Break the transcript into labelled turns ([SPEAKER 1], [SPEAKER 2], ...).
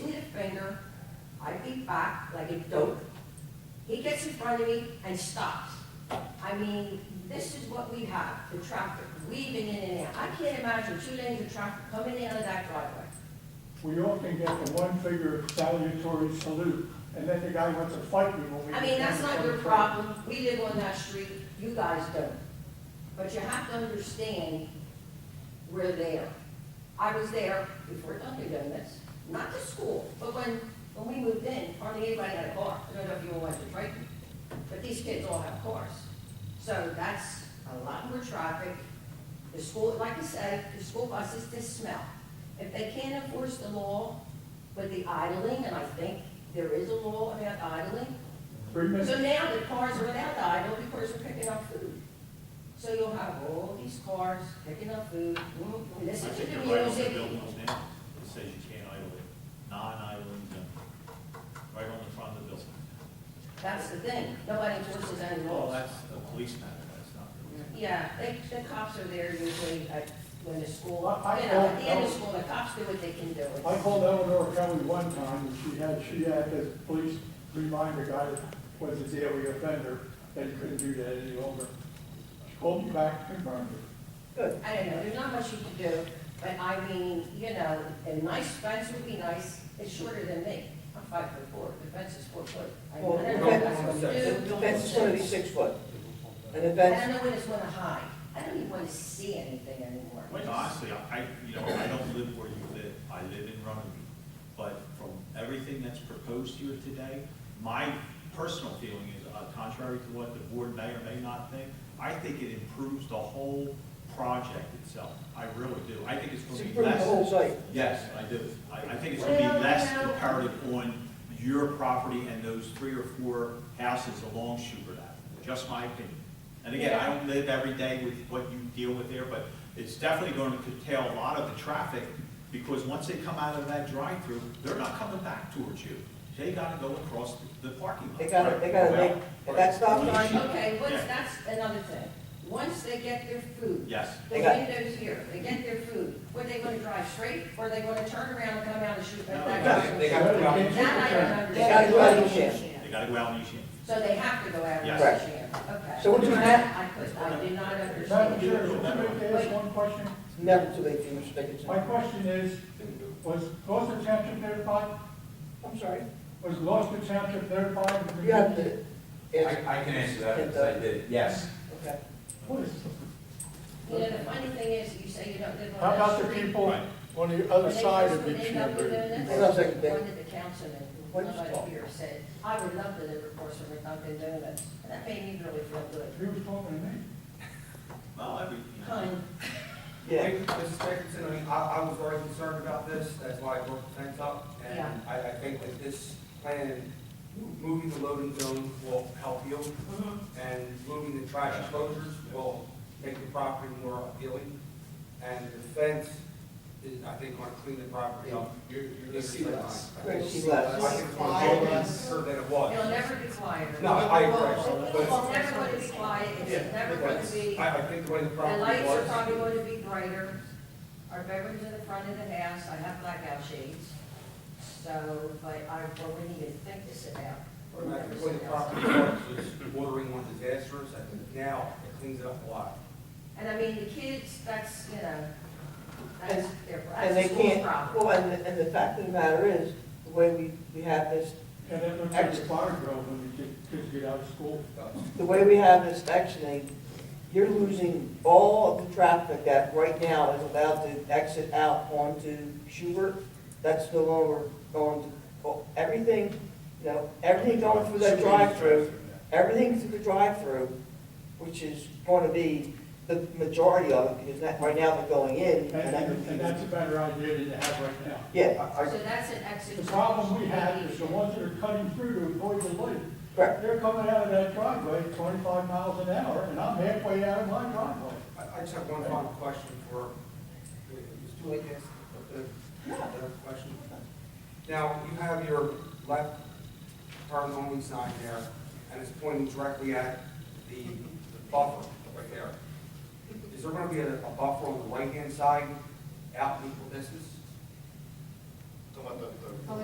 [SPEAKER 1] five feet back, like a dope. He gets in front of me and stops. I mean, this is what we have, the traffic weaving in and out. I can't imagine two lanes of traffic coming out of that driveway.
[SPEAKER 2] We often get the one figure salutary salute, and then the guy wants to fight me when we.
[SPEAKER 1] I mean, that's not your problem, we live on that street, you guys don't. But you have to understand, we're there. I was there before Dunkin' Donuts, not the school, but when, when we moved in, hardly anybody had a car. I don't know if you all went to Triton, but these kids all have cars. So that's a lot more traffic. The school, like I said, the school buses, they smell. If they can't enforce the law with the idling, and I think there is a law about idling,
[SPEAKER 2] Three minutes,
[SPEAKER 1] so now the cars are without the idle because they're picking up food. So you'll have all these cars picking up food, mm, mm,
[SPEAKER 3] I
[SPEAKER 1] listen to
[SPEAKER 3] think
[SPEAKER 1] the
[SPEAKER 3] they're right on the
[SPEAKER 1] music.
[SPEAKER 3] buildings now, it says you can't idle it, non-idling zone, right on the front of the building.
[SPEAKER 1] That's the thing, nobody enforces any
[SPEAKER 3] Well,
[SPEAKER 1] laws.
[SPEAKER 3] that's a police matter, that's not really.
[SPEAKER 1] Yeah, they, the cops are there usually at, when the school, you know,
[SPEAKER 2] I- I
[SPEAKER 1] at
[SPEAKER 2] don't
[SPEAKER 1] the end
[SPEAKER 2] know.
[SPEAKER 1] of school, the cops do what they can do.
[SPEAKER 2] I called Eleanor Kelly one time, and she had, she had the police remind the guy that was a daily offender that he couldn't do that any longer. She called me back, confirmed it.
[SPEAKER 1] Good, I don't know, there's not much you can do, but I mean, you know, a nice fence would be nice, it's shorter than me. I'm five foot four, the fence is four foot. I mean,
[SPEAKER 4] Well,
[SPEAKER 1] I don't know if
[SPEAKER 4] the
[SPEAKER 1] that's what you
[SPEAKER 4] fence-
[SPEAKER 1] do.
[SPEAKER 4] the fence is gonna be six foot, and the
[SPEAKER 1] And I
[SPEAKER 4] fence,
[SPEAKER 1] don't know when it's gonna hide. I don't even wanna see anything anymore.
[SPEAKER 3] Wait, honestly, I, I- you know, I don't live where you live, I live in Runaby. But from everything that's proposed here today, my personal feeling is, uh, contrary to what the board may or may not think, I think it improves the whole project itself. I really do. I think it's
[SPEAKER 4] it's
[SPEAKER 3] gonna be
[SPEAKER 4] improving the
[SPEAKER 3] less.
[SPEAKER 4] whole site.
[SPEAKER 3] Yes, I do. I, I think it's gonna be less comparative on your property and those three or four houses along Schubert Avenue, just my opinion. And again, I don't live every day with what you deal with there, but it's definitely going to curtail a lot of the traffic, because once they come out of that drive-through, they're not coming back towards you. They gotta go across the parking lot.
[SPEAKER 4] They gotta- they gotta make- if that stop
[SPEAKER 3] Well,
[SPEAKER 4] sign-
[SPEAKER 1] Okay, what's,
[SPEAKER 3] Yeah.
[SPEAKER 1] that's another thing. Once they get their food,
[SPEAKER 3] Yes.
[SPEAKER 1] the
[SPEAKER 4] They got-
[SPEAKER 1] windows here, they get their food, were they gonna drive straight, or are they gonna turn around and come out and shoot
[SPEAKER 3] No,
[SPEAKER 1] back?
[SPEAKER 3] they got-
[SPEAKER 1] that direction?
[SPEAKER 5] they got-
[SPEAKER 2] They
[SPEAKER 1] That I
[SPEAKER 2] can't-
[SPEAKER 1] don't
[SPEAKER 4] They gotta
[SPEAKER 1] understand.
[SPEAKER 4] go out of the shed.
[SPEAKER 3] They gotta go out and use it.
[SPEAKER 1] So they have to go out and
[SPEAKER 3] Yes.
[SPEAKER 4] Right.
[SPEAKER 1] shoot, okay.
[SPEAKER 4] So what you have-
[SPEAKER 1] I could, I did not
[SPEAKER 2] Madam
[SPEAKER 1] understand.
[SPEAKER 2] Chair, can I make- ask one question?
[SPEAKER 4] It's never too late for you to make a change.
[SPEAKER 2] My question is, was Gloucester Township notified?
[SPEAKER 4] I'm sorry,
[SPEAKER 2] Was Gloucester Township notified? of the-
[SPEAKER 4] you have to, answer.
[SPEAKER 5] I, I can answer that, because I did, it. yes.
[SPEAKER 4] okay.
[SPEAKER 2] What is-
[SPEAKER 1] You know, the funny thing is, you say you don't live on
[SPEAKER 2] How
[SPEAKER 1] that
[SPEAKER 2] about the
[SPEAKER 1] street.
[SPEAKER 2] people
[SPEAKER 3] Right.
[SPEAKER 2] on the other
[SPEAKER 1] When they
[SPEAKER 2] side
[SPEAKER 1] first-
[SPEAKER 2] of
[SPEAKER 1] when they
[SPEAKER 2] each
[SPEAKER 1] got
[SPEAKER 2] other?
[SPEAKER 1] the donuts,
[SPEAKER 4] Hold on a second, Dick.
[SPEAKER 1] One of the councilman,
[SPEAKER 4] What you
[SPEAKER 1] somebody
[SPEAKER 4] talking
[SPEAKER 1] here said, I would love to live across from a Dunkin' Donuts, and that made me really feel good.
[SPEAKER 2] He was talking to me.
[SPEAKER 3] Well, every, you know.
[SPEAKER 1] Kind,
[SPEAKER 4] Yeah,
[SPEAKER 5] Mrs. Dickinson, I mean, I, I was very concerned about this, that's why I brought the fence up.
[SPEAKER 1] Yeah.
[SPEAKER 5] And I, I think that this plan, moving the loading zone will help you,
[SPEAKER 2] Mm-hmm.
[SPEAKER 5] and moving the trash enclosures will make the property more appealing. And the fence is, I think, gonna clean the property up.
[SPEAKER 6] You're, you're
[SPEAKER 5] You'll
[SPEAKER 6] gonna
[SPEAKER 5] see
[SPEAKER 6] see less.
[SPEAKER 5] that.
[SPEAKER 4] You're gonna see
[SPEAKER 5] I
[SPEAKER 4] less.
[SPEAKER 5] think it's more cleaner than it
[SPEAKER 1] it'll
[SPEAKER 5] was.
[SPEAKER 1] never be quiet.
[SPEAKER 5] No, I agree.
[SPEAKER 1] It's
[SPEAKER 5] But it's-
[SPEAKER 1] never going to be quiet, it's never going to be,
[SPEAKER 5] I, I think the way the
[SPEAKER 1] the
[SPEAKER 5] property was.
[SPEAKER 1] lights are probably going to be brighter. Our bedroom's in the front of the house, I have blackout shades, so, but I, well, we need to think this about. We're
[SPEAKER 5] When I
[SPEAKER 1] never
[SPEAKER 5] completed
[SPEAKER 1] sitting outside.
[SPEAKER 5] property was bordering on disastrous, I think now it cleans it up a lot.
[SPEAKER 1] And I mean, the kids, that's, you know, that's their, that's
[SPEAKER 4] and they
[SPEAKER 1] the school's
[SPEAKER 4] can't,
[SPEAKER 1] problem.
[SPEAKER 4] well, and, and the fact of the matter is, the way we, we have this,
[SPEAKER 2] And it looks like a fire drill when the kid- kids get out of school.
[SPEAKER 4] the way we have this sectioning, you're losing all of the traffic that right now is allowed to exit out onto Schubert, that's no longer going to, oh, everything, you know, everything going through that drive-through everything through the drive-through, which is going to be the majority of it, because that, right now they're going in,
[SPEAKER 2] And,
[SPEAKER 4] and that
[SPEAKER 2] and and that's a
[SPEAKER 4] confuses.
[SPEAKER 2] better idea than to have right now.
[SPEAKER 4] Yeah,
[SPEAKER 5] I-
[SPEAKER 1] So that's an exit.
[SPEAKER 2] The problem we have is the ones that are cutting through to avoid the light.
[SPEAKER 4] correct.
[SPEAKER 2] They're coming out of that driveway twenty-five miles an hour, and I'm halfway out of my driveway.
[SPEAKER 5] I, I just have one final question for, it's too late to ask the, the question. Now, you have your left turn only sign there, and it's pointing directly at the buffer right there. Is there gonna be a, a buffer on the right-hand side, out in equal distance?
[SPEAKER 6] Come on, the, the.